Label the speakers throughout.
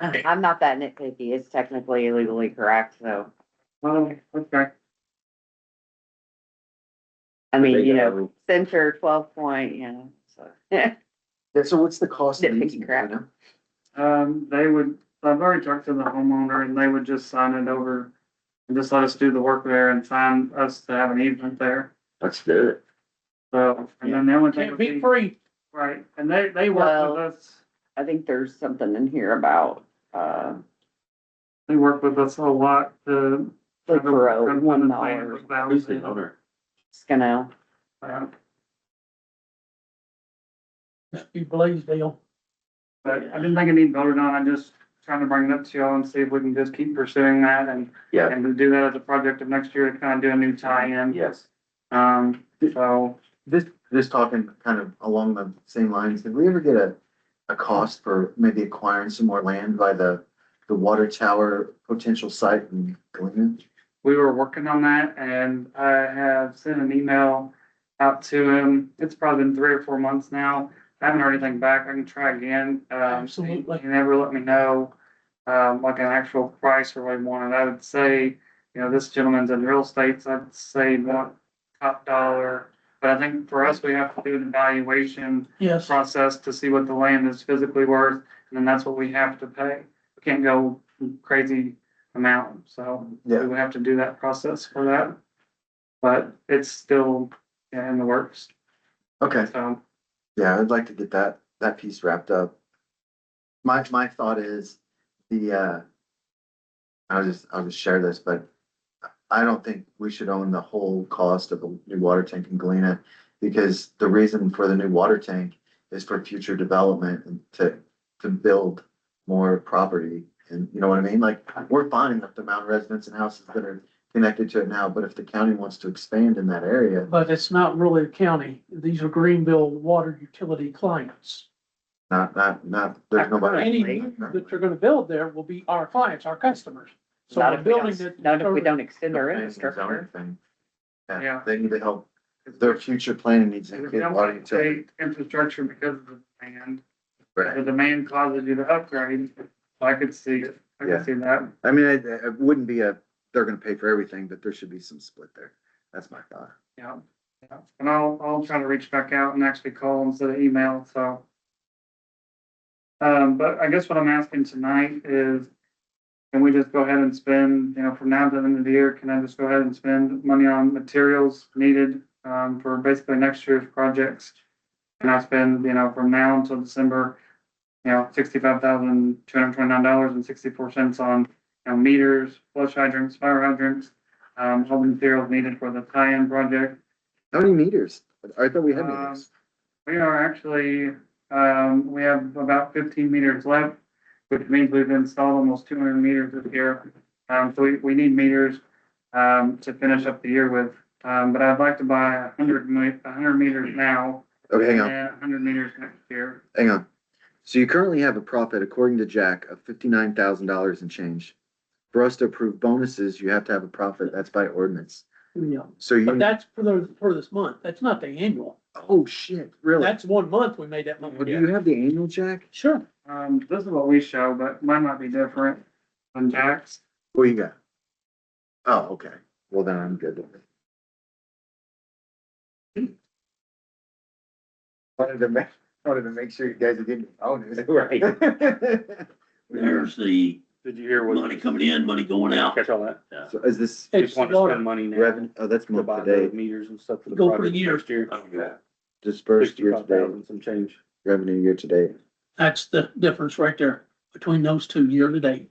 Speaker 1: Uh-huh.
Speaker 2: I'm not that nitpicky. It's technically legally correct, so.
Speaker 3: Oh, okay.
Speaker 2: I mean,
Speaker 1: They
Speaker 2: you know,
Speaker 1: go-
Speaker 2: censure twelve point, you know, so.
Speaker 1: Yeah, so what's the cost of
Speaker 2: Nitpicky
Speaker 1: using it,
Speaker 2: crap.
Speaker 1: you know?
Speaker 3: Um, they would, I've already talked to the homeowner and they would just sign it over and just let us do the work there and sign us to have an easement there.
Speaker 1: Let's do it.
Speaker 3: So, and then the only thing
Speaker 4: Can't
Speaker 3: would
Speaker 4: be
Speaker 3: be,
Speaker 4: free.
Speaker 3: right, and they, they work
Speaker 2: Well-
Speaker 3: with us,
Speaker 2: I think there's something in here about, uh,
Speaker 3: they work with us a lot to.
Speaker 2: like for a
Speaker 3: Kind of
Speaker 2: one
Speaker 3: plan
Speaker 2: dollar,
Speaker 3: with value.
Speaker 1: Who's the owner?
Speaker 2: it's gonna,
Speaker 3: Yeah,
Speaker 4: Must be Blaisdell.
Speaker 3: But I didn't think it needed voted on, I'm just trying to bring it up to y'all and see if we can just keep pursuing that and,
Speaker 1: Yeah,
Speaker 3: and to do that as a project of next year to kind of do a new tie-in.
Speaker 1: yes.
Speaker 3: Um, so,
Speaker 1: This, this talking kind of along the same lines, did we ever get a, a cost for maybe acquiring some more land by the, the water tower potential site in Galena?
Speaker 3: we were working on that and I have sent an email out to him. It's probably been three or four months now. I haven't heard anything back. I can try again. Um,
Speaker 4: Absolutely.
Speaker 3: He never let me know, um, like an actual price or what he wanted. I would say, you know, this gentleman's in real estate, so I'd say not top dollar. But I think for us, we have to do an evaluation
Speaker 4: Yes,
Speaker 3: process to see what the land is physically worth, and then that's what we have to pay. We can't go crazy amount, so we
Speaker 1: Yeah.
Speaker 3: would have to do that process for that. But it's still in the works,
Speaker 1: Okay,
Speaker 3: so.
Speaker 1: yeah, I'd like to get that, that piece wrapped up. My, my thought is the, uh, I'll just, I'll just share this, but I don't think we should own the whole cost of a new water tank in Galena. Because the reason for the new water tank is for future development and to, to build more property. And you know what I mean? Like, we're fine with the mountain residents and houses that are connected to it now, but if the county wants to expand in that area,
Speaker 4: but it's not really a county. These are Greenville water utility clients.
Speaker 1: not, not, not, there's nobody.
Speaker 4: Any that you're gonna build there will be our clients, our customers. So
Speaker 2: not
Speaker 4: the
Speaker 2: if we
Speaker 4: building
Speaker 2: don't,
Speaker 4: that.
Speaker 2: not if we don't extend our
Speaker 1: planning and zoning
Speaker 2: infrastructure.
Speaker 1: thing.
Speaker 3: Yeah.
Speaker 1: Yeah, they need to help, their future planning needs to
Speaker 3: If
Speaker 1: include
Speaker 3: you
Speaker 1: water
Speaker 3: don't
Speaker 1: utility.
Speaker 3: take infrastructure because of the demand, the
Speaker 1: Right.
Speaker 3: demand causes you to upgrade, I could see, I
Speaker 1: Yeah.
Speaker 3: could see that.
Speaker 1: I mean, it, it wouldn't be a, they're gonna pay for everything, but there should be some split there. That's my thought.
Speaker 3: Yeah, yeah, and I'll, I'll try to reach back out and actually call instead of email, so. Um, but I guess what I'm asking tonight is, can we just go ahead and spend, you know, from now to the end of the year, can I just go ahead and spend money on materials needed, um, for basically next year's projects? And I spend, you know, from now until December, you know, sixty-five thousand, two hundred twenty-nine dollars and sixty-four cents on, you know, meters, flush hydrants, fire hydrants, um, all the materials needed for the tie-in project.
Speaker 1: How many meters? I thought we had
Speaker 3: Um,
Speaker 1: meters.
Speaker 3: We are actually, um, we have about fifteen meters left, which means we've installed almost two hundred meters this year. Um, so we, we need meters, um, to finish up the year with. Um, but I'd like to buy a hundred mi- a hundred meters now
Speaker 1: Okay, hang
Speaker 3: and
Speaker 1: on.
Speaker 3: a hundred meters next year.
Speaker 1: Hang on. So you currently have a profit, according to Jack, of fifty-nine thousand dollars and change. For us to approve bonuses, you have to have a profit. That's by ordinance.
Speaker 4: Yeah,
Speaker 1: So you,
Speaker 4: but that's for the, for this month. That's not the annual.
Speaker 1: oh shit, really?
Speaker 4: That's one month we made that money.
Speaker 1: Well, Do you have the annual, Jack?
Speaker 4: Sure.
Speaker 3: Um, this is what we show, but mine might be different than Jack's.
Speaker 1: What you got? Oh, okay. Well, then I'm good. with it. Wanted to make, wanted to make sure you guys didn't own it.
Speaker 5: Right.
Speaker 6: There's the
Speaker 5: Did you hear
Speaker 6: money coming in, money going out.
Speaker 5: Catch all that?
Speaker 1: So is this
Speaker 4: It's
Speaker 5: Just want to
Speaker 4: water.
Speaker 5: spend money now.
Speaker 1: revenue, oh, that's
Speaker 5: To
Speaker 1: month
Speaker 5: buy
Speaker 1: to
Speaker 5: those
Speaker 1: date,
Speaker 5: meters and stuff for the
Speaker 4: Go for the
Speaker 5: project
Speaker 4: year.
Speaker 5: next year.
Speaker 6: Oh,
Speaker 1: dispersed year to
Speaker 5: Sixty-five
Speaker 1: date,
Speaker 5: thousand, some change.
Speaker 1: revenue year to date.
Speaker 4: That's the difference right there between those two year to date.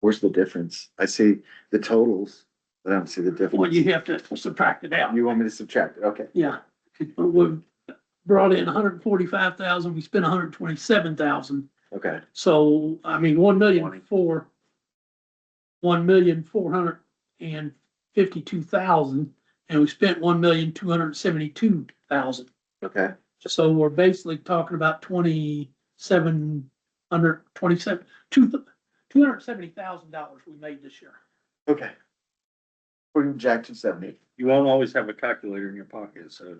Speaker 1: Where's the difference? I see the totals, but I don't see the
Speaker 4: Well,
Speaker 1: difference.
Speaker 4: you have to subtract it out.
Speaker 1: You want me to subtract it? Okay.
Speaker 4: Yeah. We brought in hundred and forty-five thousand, we spent hundred and twenty-seven thousand.
Speaker 1: Okay.
Speaker 4: So, I mean, one million
Speaker 5: Twenty.
Speaker 4: four, one million four hundred and fifty-two thousand, and we spent one million two hundred and seventy-two thousand.
Speaker 1: Okay.
Speaker 4: So we're basically talking about twenty-seven hundred, twenty-seven, two, two hundred and seventy thousand dollars we made this year.
Speaker 1: Okay. According to Jack two seventy.
Speaker 5: You won't always have a calculator in your pocket, so